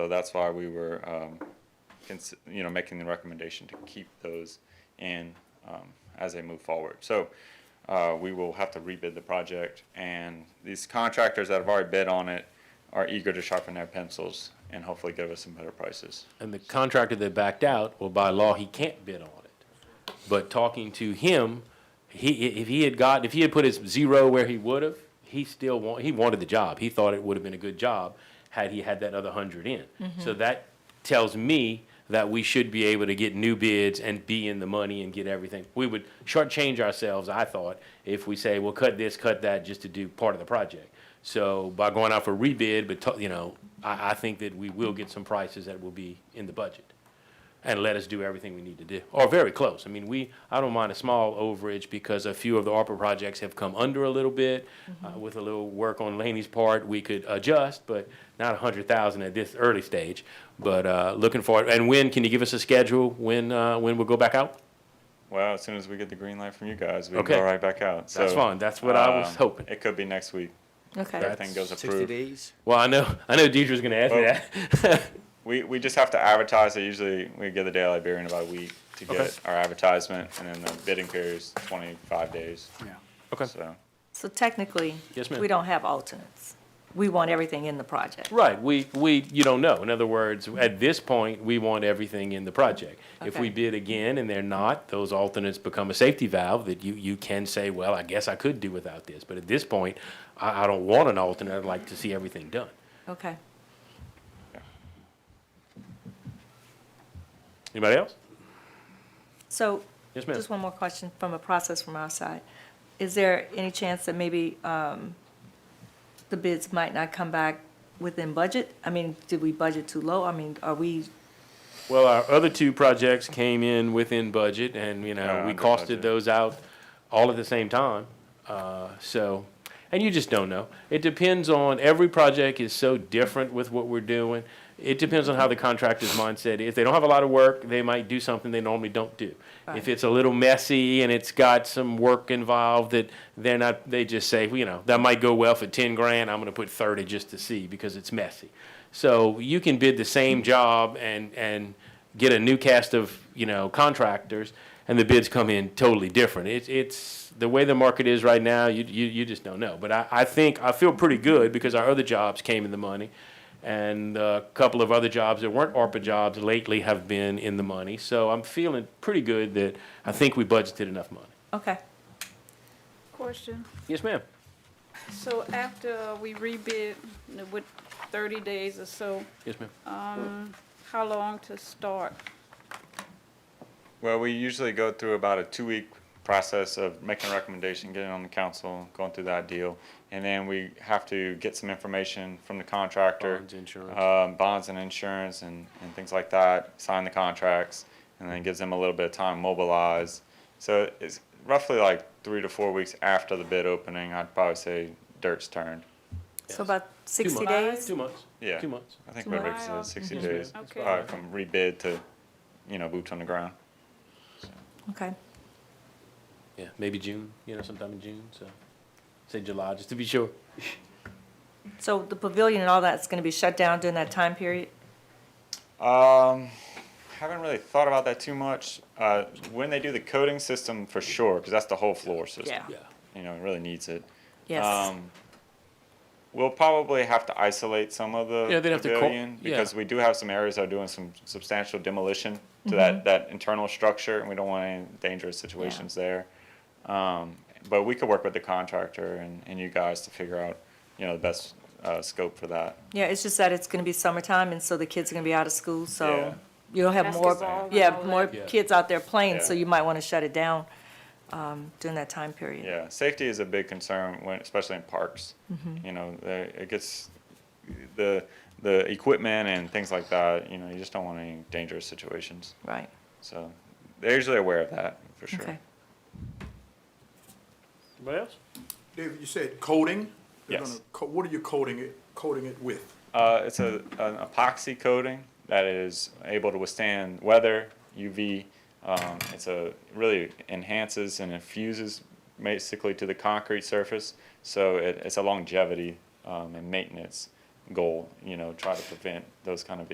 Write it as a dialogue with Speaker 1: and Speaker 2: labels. Speaker 1: So that's why we were, um, cons- you know, making the recommendation to keep those in, um, as they move forward. So, uh, we will have to rebid the project and these contractors that have already bid on it are eager to sharpen their pencils and hopefully give us some better prices.
Speaker 2: And the contractor that backed out, well, by law, he can't bid on it. But talking to him, he, if he had got, if he had put his zero where he would have, he still want, he wanted the job. He thought it would have been a good job had he had that other hundred in. So that tells me that we should be able to get new bids and be in the money and get everything. We would shortchange ourselves, I thought, if we say, well, cut this, cut that, just to do part of the project. So by going out for rebid, but, to- you know, I, I think that we will get some prices that will be in the budget. And let us do everything we need to do, or very close. I mean, we, I don't mind a small overage because a few of the ARPA projects have come under a little bit. Uh, With a little work on Laney's part, we could adjust, but not a hundred thousand at this early stage. But, uh, looking for it. And when, can you give us a schedule when, uh, when we'll go back out?
Speaker 1: Well, as soon as we get the green light from you guys, we can
Speaker 2: Okay.
Speaker 1: go right back out. So,
Speaker 2: That's fine. That's what I was
Speaker 1: um,
Speaker 2: hoping.
Speaker 1: It could be next week.
Speaker 3: Okay.
Speaker 1: Everything goes
Speaker 4: Sixty
Speaker 1: approved.
Speaker 4: days?
Speaker 2: Well, I know, I know Deidre's gonna ask me that.
Speaker 1: We, we just have to advertise. it. usually we get the Daily Beer in about a week to get
Speaker 2: Okay.
Speaker 1: our advertisement, and then the bidding period is 25 days.
Speaker 4: Yeah.
Speaker 2: Okay.
Speaker 1: So
Speaker 3: So technically,
Speaker 2: Yes, ma'am.
Speaker 3: we don't have alternates. We want everything in the project.
Speaker 2: Right, we, we, you don't know. In other words, at this point, we want everything in the project. If we
Speaker 3: Okay.
Speaker 2: bid again and they're not, those alternates become a safety valve that you, you can say, well, I guess I could do without this. But at this point, I, I don't want an alternate. I'd like to see everything done.
Speaker 3: Okay.
Speaker 2: Anybody else?
Speaker 3: So
Speaker 2: Yes, ma'am.
Speaker 3: just one more question from a process from our side. Is there any chance that maybe um, the bids might not come back within budget? I mean, did we budget too low? I mean, are we,
Speaker 2: Well, our other two projects came in within budget and, you know,
Speaker 1: Uh,
Speaker 2: we
Speaker 1: under
Speaker 2: costed
Speaker 1: budget.
Speaker 2: those out all at the same time. Uh, so, and you just don't know. It depends on, every project is so different with what we're doing. It depends on how the contractor's mindset is. If they don't have a lot of work, they might do something they normally don't do. If
Speaker 3: Right.
Speaker 2: it's a little messy and it's got some work involved that they're not, they just say, you know, that might go well for ten grand, I'm gonna put thirty just to see because it's messy. So you can bid the same job and, and get a new cast of, you know, contractors and the bids come in totally different. It's, it's, the way the market is right now, you, you, you just don't know. But I, I think, I feel pretty good because our other jobs came in the money. And uh, a couple of other jobs that weren't ARPA jobs lately have been in the money. So I'm feeling pretty good that I think we budgeted enough money.
Speaker 3: okay,
Speaker 5: Question,
Speaker 2: Yes, ma'am.
Speaker 5: so after we rebid with thirty days or so,
Speaker 2: Yes, ma'am.
Speaker 5: how long to start?
Speaker 1: Well, we usually go through about a two-week process of making a recommendation, getting it on the council, going through that deal. And then we have to get some information from the contractor.
Speaker 2: Bonds, insurance.
Speaker 1: Um, bonds and insurance and, and things like that, sign the contracts, and then gives them a little bit of time, to mobilize. So it's roughly like three to four weeks after the bid opening, I'd probably say dirt's turned.
Speaker 3: so about
Speaker 2: Two
Speaker 3: 60
Speaker 2: months.
Speaker 3: days?
Speaker 2: Two months.
Speaker 1: Yeah.
Speaker 2: Two months.
Speaker 1: I think what Rick
Speaker 5: Wow.
Speaker 1: said, sixty
Speaker 2: Yes, ma'am.
Speaker 1: days,
Speaker 5: Okay.
Speaker 1: probably from rebid to, you know, boots on the ground.
Speaker 3: Okay,
Speaker 2: Yeah, maybe June, you know, sometime in June, so, say July, just to be sure.
Speaker 3: so the pavilion and all that's going to be shut down during that time period?
Speaker 1: Um, haven't really thought about that too much. Uh, when they do the coating system, for sure, because that's the whole floor system.
Speaker 3: Yeah.
Speaker 2: Yeah.
Speaker 1: You know, it really needs it.
Speaker 3: Yes.
Speaker 1: Um, we'll probably have to isolate some of the
Speaker 2: Yeah, they'd have to co-
Speaker 1: pavilion because
Speaker 2: yeah.
Speaker 1: we do have some areas that are doing some substantial demolition to
Speaker 2: Mm-hmm.
Speaker 1: that, that internal structure, and we don't want any dangerous situations there. Um, but we could work with the contractor and, and you guys to figure out, you know, the best uh, scope for that.
Speaker 3: Yeah, it's just that it's going to be summertime, and so the kids are going to be out of school,
Speaker 1: Yeah.
Speaker 3: so you'll have more,
Speaker 5: Basketball and
Speaker 3: yeah,
Speaker 5: all
Speaker 3: more
Speaker 5: that.
Speaker 2: Yeah.
Speaker 3: kids out there playing, so
Speaker 1: Yeah.
Speaker 3: you might want to shut it down um, during that time period.
Speaker 1: Yeah, safety is a big concern when, especially in parks.
Speaker 2: Mm-hmm.
Speaker 1: You know, the- it gets the the equipment and things like that. You know, you just don't want any dangerous situations.
Speaker 3: Right,
Speaker 1: So they're usually aware of that for sure.
Speaker 3: okay.
Speaker 2: Anybody else?
Speaker 6: David, you said coating? They're
Speaker 1: Yes.
Speaker 6: gonna co- What are you coating it, coating it with?
Speaker 1: Uh, it's a an epoxy coating that is able to withstand weather, UV. Um, it's a really enhances and infuses basically to the concrete surface. So it, it's a longevity um, and maintenance goal. You know, try to prevent those kind of